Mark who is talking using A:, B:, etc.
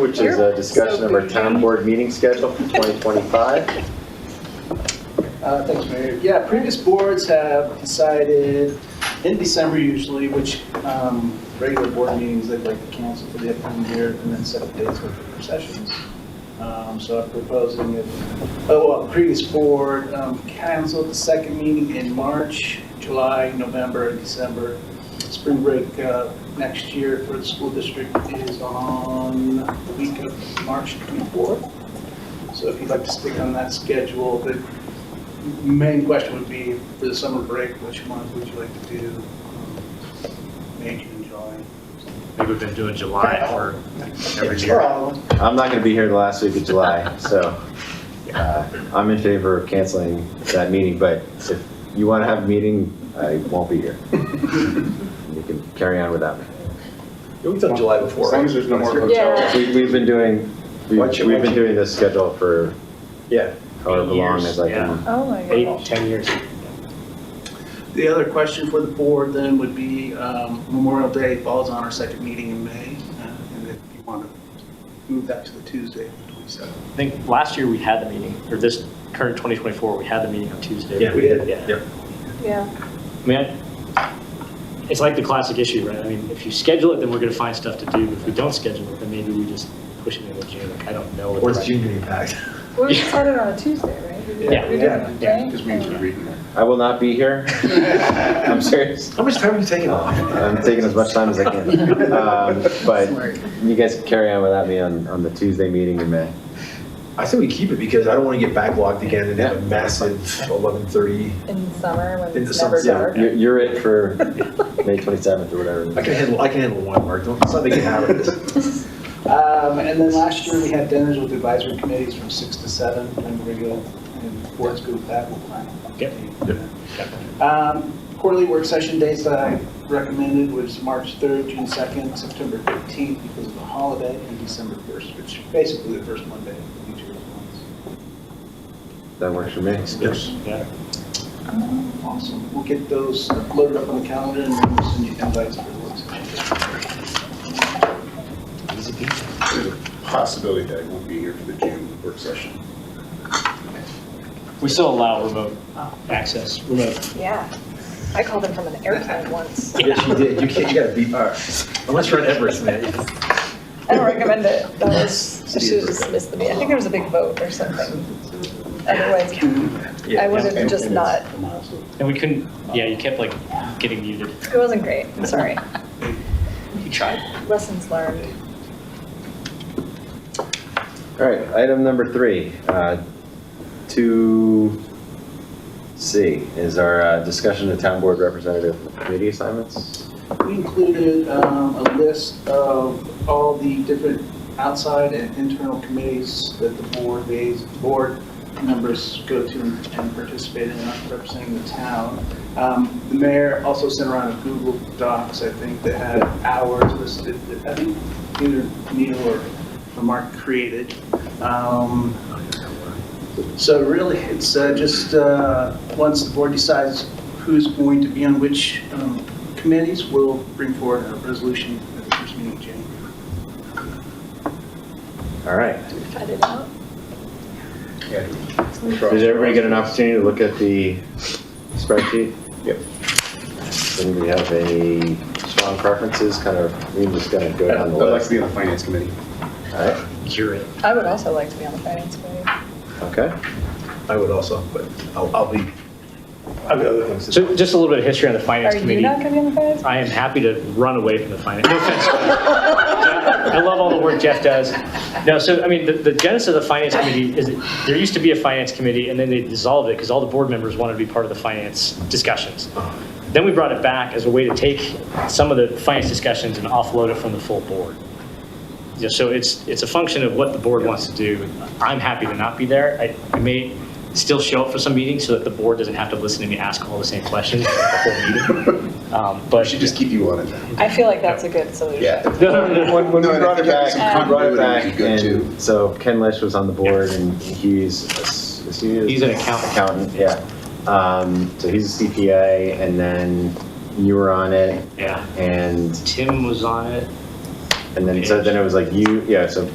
A: which is a discussion of our town board meeting schedule for 2025.
B: Uh, Thanks, Mayor. Yeah, previous boards have decided in December usually, which um, regular board meetings they'd like to cancel for the upcoming year and then set the dates for future sessions. Um, So I'm proposing if, oh, well, previous board um, canceled the second meeting in March, July, November, and December. Spring break uh, next year for the school district is on the week of March 24th. So if you'd like to stick on that schedule, then main question would be for the summer break, which month would you like to do? um, May, June, July?
C: Maybe we've been doing July for every
B: Or
C: year.
B: all of them.
A: I'm not going to be here the last week of July, so uh, I'm in favor of canceling that meeting, but if you want to have a meeting, I won't be here. You can carry on without me.
D: We've done July before.
E: As long as there's no more
F: Yeah.
E: hotels.
A: We- We've been doing, we've
E: Why don't you-
A: we've been doing this schedule for
D: Yeah.
A: however
C: Eight
A: long
C: years,
A: as I
C: yeah.
A: can.
F: Oh, my
D: Eight,
F: gosh.
D: 10 years.
B: The other question for the board then would be um, Memorial Day falls on our second meeting in May, uh, and if you want to move that to the Tuesday, the 27th.
G: I think last year we had the meeting, or this current 2024, we had the meeting on Tuesday.
D: Yeah,
B: we did.
G: Yeah.
D: Yep.
F: Yeah,
G: I mean, I- it's like the classic issue, right? I mean, if you schedule it, then we're going to find stuff to do. If we don't schedule it, then maybe we just push it into June. Like, I don't know. what the
D: Or it's
G: right-
D: June getting packed.
F: we decided on a Tuesday, right? We did-
G: Yeah.
F: We did it on
G: Yeah.
F: May?
E: Just means we're reading it.
A: I will not be here. I'm serious.
D: How much time are you taking off?
A: I'm taking as much time as I can. Um, But you guys can carry on without me on, on the Tuesday meeting in May.
D: I say we keep it because I don't want to get backlogged again and have a massive 11:30.
F: In summer, when
D: In
F: it's
D: the
F: never
D: summer,
F: dark.
A: You're, you're it for May 27th or whatever.
D: I can handle, I can handle one, Mark. Don't, it's not making out of this.
B: Um, And then last year, we had dinners with advisory committees from 6 to 7, and regular, and boards group that will plan.
G: Yep.
B: Um, Quarterly work session dates that I recommended was March 3rd, June 2nd, September 15th because of the holiday, and December 1st, which is basically the first Monday of each of those months.
A: That works for me.
G: Yeah.
B: Awesome. We'll get those loaded up on the calendar and then we'll send you invites for the work session.
E: There's a possibility that I won't be here for the June work session.
G: We still allow remote access, remote.
F: Yeah. I called him from an airplane once.
D: Yes, you did. You can't, you gotta be, all right. unless you're on Everest, man.
F: I don't recommend it. That was, I should have just missed the meeting. I think there was a big vote or something. Otherwise, I would have
E: And-
F: just
E: and
F: not,
E: it's a milestone.
G: And we couldn't, yeah, you kept like getting muted.
F: it wasn't great. I'm sorry.
G: You tried.
F: Lessons learned.
A: All right, item number three, uh, 2C is our uh, discussion of town board representative committee assignments.
B: We included um, a list of all the different outside and internal committees that the board, the board members go to and participate in representing the town. Um, The mayor also sent around a Google Docs, I think, that had hours listed, that I think either Neil or or Mark created. Um, So really, it's uh, just, uh, once the board decides who's going to be on which um, committees will bring forward a resolution at the first meeting in January.
A: All right.
F: Cut it out.
A: Did everybody get an opportunity to look at the spreadsheet?
E: Yep.
A: Does anybody have any strong preferences, kind of, we can just kind of go
E: I'd
A: down the
E: like to
A: list?
E: be on the finance committee.
A: All right,
G: You're it.
F: I would also like to be on the finance committee.
A: okay.
D: I would also, but I'll, I'll be, I've got other things to do.
G: So just a little bit of history on the finance
F: Are you
G: committee.
F: not going to be on the finance?
G: I am happy to run away from the finance. No offense. I love all the work Jeff does. No, so, I mean, the, the genesis of the finance committee is, that there used to be a finance committee, and then they dissolved it because all the board members wanted to be part of the finance discussions. Then we brought it back as a way to take some of the finance discussions and offload it from the full board. You know, So it's, it's a function of what the board wants to do. I'm happy to not be there. I- I may still show up for some meetings so that the board doesn't have to listen to me ask all the same questions for the whole meeting. Um,
E: I
G: But
E: should just keep you on it then.
F: I feel like that's a good solution.
A: No, no, no, no. When, when
E: No,
A: we
E: and I
A: brought it
E: think having some
A: back, we brought it
E: continuity
A: back,
E: would be good too.
A: and so Ken Lish was on the board, and he's, a s- is he? a-
G: He's an accountant.
A: Accountant, yeah. Um, so he's a CPA, and then you were on it,
G: Yeah,
A: and,
G: Tim was on it.
A: and then, so then it was like you, yeah, so